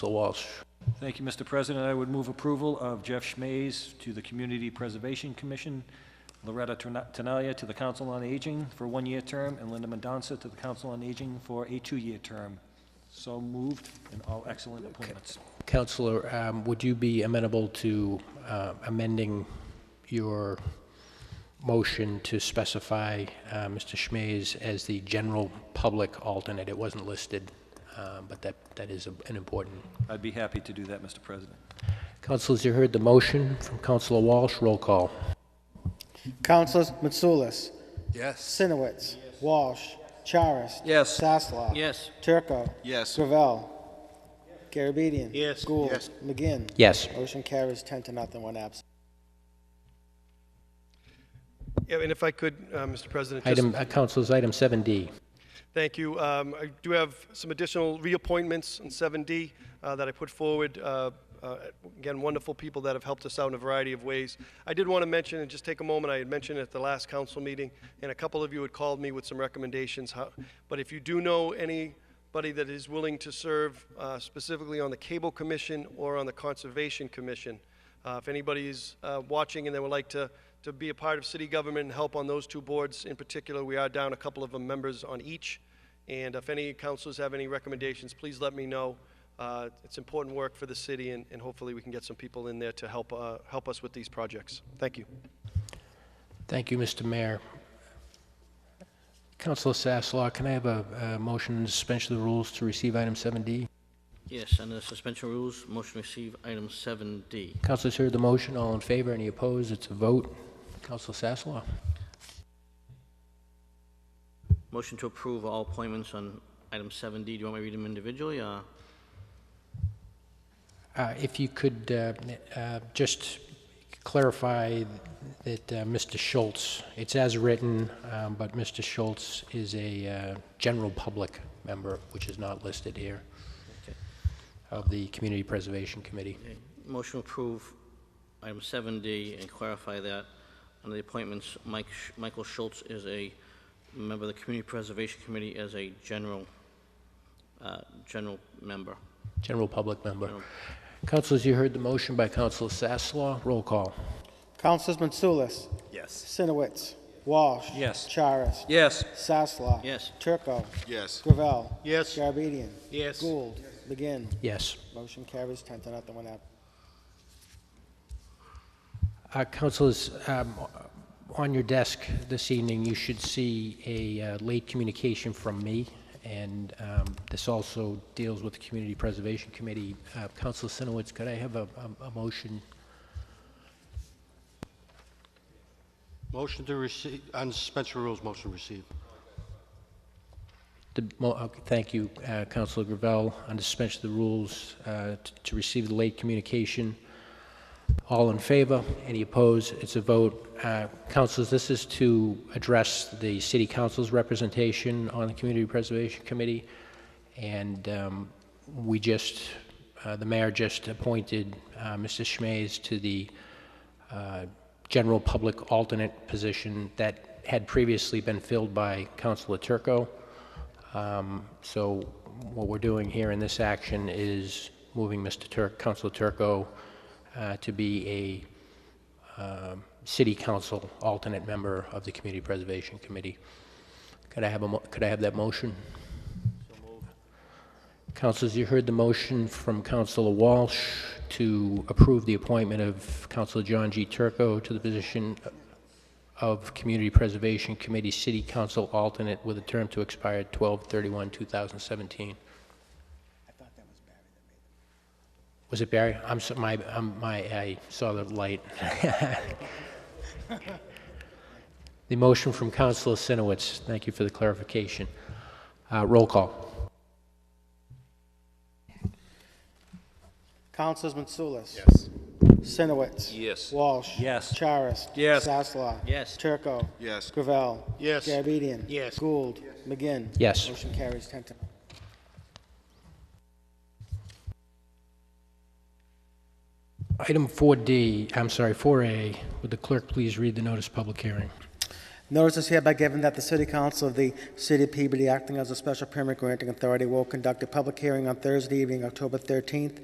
Mr. Walsh. Thank you, Mr. President. I would move approval of Jeff Schmays to the Community Preservation Commission, Loretta Tana- Tanalia to the Council on Aging for a one-year term, and Linda Mendonça to the Council on Aging for a two-year term. So moved, and all excellent appointments. Counselor, um, would you be amenable to uh, amending your motion to specify uh, Mr. Schmays as the general public alternate? It wasn't listed, um, but that, that is a- an important. I'd be happy to do that, Mr. President. Councilors, you heard the motion from Counselor Walsh. Roll call. Councilors Mitsoulas, Yes. Sinowitz, Walsh, Charis. Yes. Sasslaw. Yes. Turco. Yes. Gravel. Garabedian. Yes. Gould. Yes. McGinn. Yes. Motion carries ten to nothing, one absent. Yeah, and if I could, uh, Mr. President, just, Item, uh, Counselors, item 7D. thank you. Um, I do have some additional reappointments in 7D uh, that I put forward. Uh, uh, again, wonderful people that have helped us out in a variety of ways. I did want to mention, and just take a moment, I had mentioned at the last council meeting, and a couple of you had called me with some recommendations. How, but if you do know anybody that is willing to serve uh, specifically on the Cable Commission or on the Conservation Commission, uh, if anybody's uh, watching and they would like to, to be a part of city government and help on those two boards in particular, we are down a couple of um, members on each. And if any councilors have any recommendations, please let me know. Uh, it's important work for the city, and, and hopefully we can get some people in there to help uh, help us with these projects. Thank you. Thank you, Mr. Mayor. Counselor Sasslaw, can I have a a motion to suspension of the rules to receive item 7D? Yes, under the suspension of rules, motion to receive item 7D. Councilors heard the motion, all in favor, any opposed, it's a vote. Counselor Sasslaw? Motion to approve all appointments on item 7D. Do you want me to read them individually? Uh, Uh, If you could uh, uh, just clarify that uh, Mr. Schultz, it's as written, um, but Mr. Schultz is a uh, general public member, which is not listed here, Okay. of the Community Preservation Committee. okay. Motion to approve item 7D and clarify that under the appointments, Mike, Sch- Michael Schultz is a member of the Community Preservation Committee as a general, uh, general member. General public member. Councilors, you heard the motion by Councilor Sasslaw. Roll call. Councilors Mitsoulas, Yes. Sinowitz, Walsh. Yes. Charis. Yes. Sasslaw. Yes. Turco. Yes. Gravel. Yes. Garabedian. Yes. Gould. McGinn. Yes. Motion carries ten to nothing, one absent. Uh, Councilors, um, on your desk this evening, you should see a uh, late communication from me, and um, this also deals with the Community Preservation Committee. Uh, Councilor Sinowitz, could I have a a- a motion? Motion to receive, on suspension of rules, motion to receive. The mo- okay, Thank you, uh, Councilor Gravel, on the suspension of the rules uh, t- to receive the late communication. All in favor? Any opposed? It's a vote. Uh, Councilors, this is to address the city council's representation on the Community Preservation Committee, and um, we just, uh, the mayor just appointed uh, Mr. Schmays to the uh, general public alternate position that had previously been filled by Councilor Turco. Um, So what we're doing here in this action is moving Mr. Turk, Councilor Turco, uh, to be a um, city council alternate member of the Community Preservation Committee. Could I have a, mo- could I have that motion? Councilors, you heard the motion from Councilor Walsh to approve the appointment of Councilor John G. Turco to the position of Community Preservation Committee City Council alternate with a term to expire 12/31/2017. Was it Barry? I'm, so- my, I'm- my, I saw the light. The motion from Councilor Sinowitz, thank you for the clarification. Uh, Roll call. Councilors Mitsoulas. Yes. Sinowitz. Yes. Walsh. Yes. Charis. Yes. Sasslaw. Yes. Turco. Yes. Gravel. Yes. Garabedian. Yes. Gould. McGinn. Yes. Motion carries ten to. Item 4D, I'm sorry, 4A, would the clerk please read the notice of public hearing? Notice is hereby given that the City Council of the City of Peabody, acting as a special permit granting authority, will conduct a public hearing on Thursday evening, October 13th,